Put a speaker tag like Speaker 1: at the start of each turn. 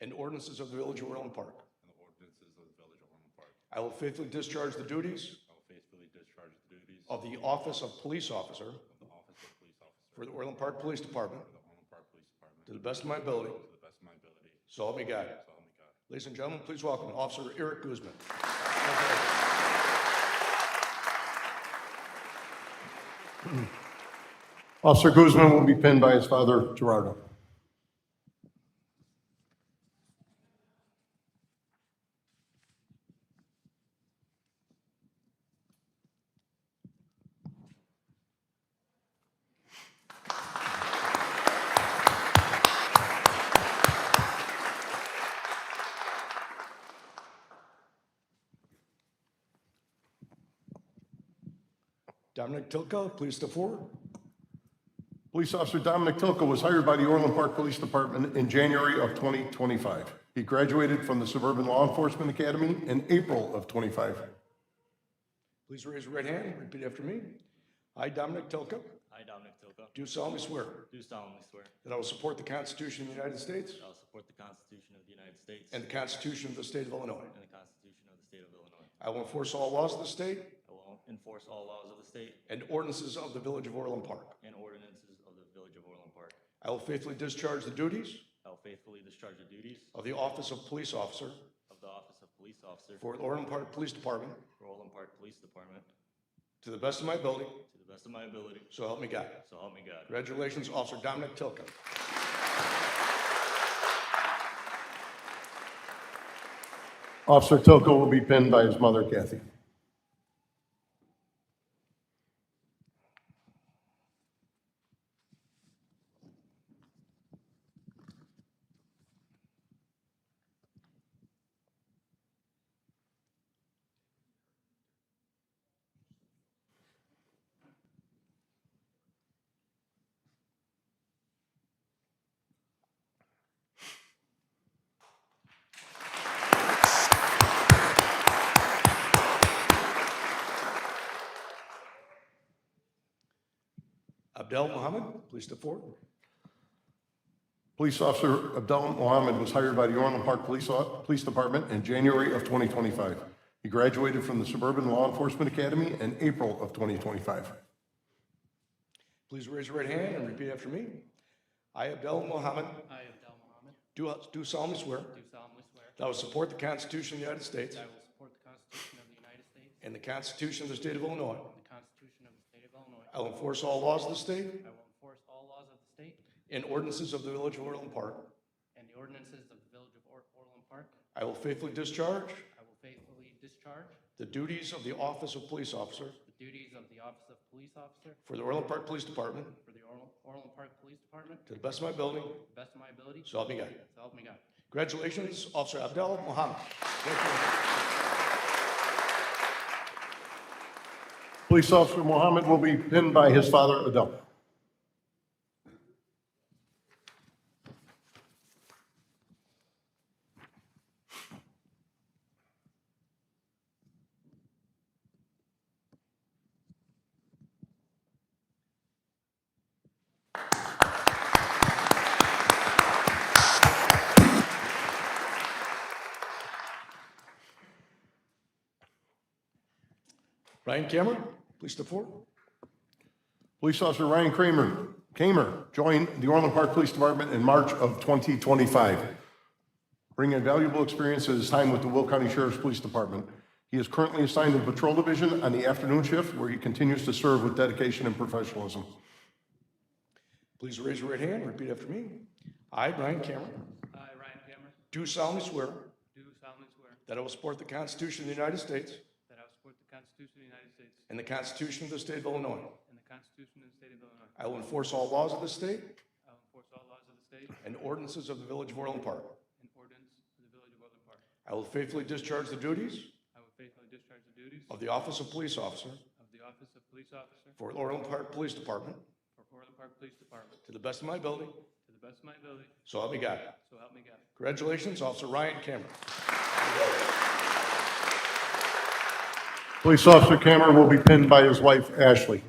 Speaker 1: and ordinances of the Village of Orland Park.
Speaker 2: and the ordinances of the Village of Orland Park.
Speaker 1: I will faithfully discharge the duties
Speaker 2: I will faithfully discharge the duties of
Speaker 1: of the Office of Police Officer
Speaker 2: the Office of Police Officer
Speaker 1: for the Orland Park Police Department
Speaker 2: for the Orland Park Police Department
Speaker 1: to
Speaker 2: to
Speaker 1: the best of my ability.
Speaker 2: the best of my ability.
Speaker 1: So help me God.
Speaker 2: So help me God.
Speaker 1: Ladies and gentlemen, please welcome Officer Eric Guzman.
Speaker 3: Officer Guzman will be pinned by his father, Gerardo.
Speaker 1: Dominic Tilka, please step forward.
Speaker 3: Police Officer Dominic Tilka was hired by the Orland Park Police Department in January of 2025. He graduated from the Suburban Law Enforcement Academy in April of 25.
Speaker 1: Please raise your right hand and repeat after me. I, Dominic Tilka,
Speaker 4: I, Dominic Toka,
Speaker 1: do solemnly swear
Speaker 4: do solemnly swear
Speaker 1: that I will support the Constitution of the United States
Speaker 4: that I will support the Constitution of the United States
Speaker 1: and
Speaker 4: and
Speaker 1: the Constitution of the State of Illinois.
Speaker 4: the Constitution of the State of Illinois.
Speaker 1: I will enforce all laws of the state
Speaker 4: I will enforce all laws of the state
Speaker 1: and ordinances of the Village of Orland Park.
Speaker 4: and ordinances of the Village of Orland Park.
Speaker 1: I will faithfully discharge the duties
Speaker 4: I will faithfully discharge the duties
Speaker 1: of the Office of Police Officer
Speaker 4: of the Office of Police Officer
Speaker 1: for the Orland Park Police Department
Speaker 4: for Orland Park Police Department
Speaker 1: to the best of my ability,
Speaker 4: to the best of my ability,
Speaker 1: so help me God.
Speaker 4: so help me God.
Speaker 1: Congratulations, Officer Dominic Tilka.
Speaker 3: Officer Tilka will be pinned by his mother, Kathy.
Speaker 1: Abdel Mohammed, please step forward.
Speaker 3: Police Officer Abdel Mohammed was hired by the Orland Park Police, Police Department in January of 2025. He graduated from the Suburban Law Enforcement Academy in April of 2025.
Speaker 1: Please raise your right hand and repeat after me. I, Abdel Mohammed,
Speaker 5: I, Abdel Mohammed,
Speaker 1: do do solemnly swear
Speaker 5: do solemnly swear
Speaker 1: that I will support the Constitution of the United States
Speaker 5: that I will support the Constitution of the United States
Speaker 1: and the Constitution of the State of Illinois.
Speaker 5: and the Constitution of the State of Illinois.
Speaker 1: I will enforce all laws of the state
Speaker 5: I will enforce all laws of the state
Speaker 1: and ordinances of the Village of Orland Park.
Speaker 5: and the ordinances of the Village of Or- Orland Park.
Speaker 1: I will faithfully discharge
Speaker 5: I will faithfully discharge
Speaker 1: the duties of the Office of Police Officer
Speaker 5: the duties of the Office of Police Officer
Speaker 1: for the Orland Park Police Department
Speaker 5: for the Orl- Orland Park Police Department
Speaker 1: to the best of my ability,
Speaker 5: to the best of my ability.
Speaker 1: so help me God.
Speaker 5: So help me God.
Speaker 1: Congratulations, Officer Abdel Mohammed. Thank you.
Speaker 3: Police Officer Mohammed will be pinned by his father, Adel.
Speaker 1: Ryan Cameron, please step forward.
Speaker 3: Police Officer Ryan Kramer, Kramer joined the Orland Park Police Department in March of 2025, bringing valuable experience at his time with the Will County Sheriff's Police Department. He is currently assigned to the Patrol Division on the afternoon shift, where he continues to serve with dedication and professionalism.
Speaker 1: Please raise your right hand and repeat after me. I, Brian Cameron,
Speaker 5: I, Ryan Cameron,
Speaker 1: do solemnly swear
Speaker 5: do solemnly swear
Speaker 1: that I will support the Constitution of the United States
Speaker 5: that I will support the Constitution of the United States
Speaker 1: and the Constitution of the State of Illinois.
Speaker 5: and the Constitution of the State of Illinois.
Speaker 1: I will enforce all laws of the state
Speaker 5: I will enforce all laws of the state
Speaker 1: and ordinances of the Village of Orland Park.
Speaker 5: and ordinances of the Village of Orland Park.
Speaker 1: I will faithfully discharge the duties
Speaker 5: I will faithfully discharge the duties
Speaker 1: of the Office of Police Officer
Speaker 5: of the Office of Police Officer
Speaker 1: for Orland Park Police Department
Speaker 5: for Orland Park Police Department
Speaker 1: to the best of my ability,
Speaker 5: to the best of my ability,
Speaker 1: so help me God.
Speaker 5: so help me God.
Speaker 1: Congratulations, Officer Ryan Cameron.
Speaker 3: Police Officer Kramer will be pinned by his wife, Ashley.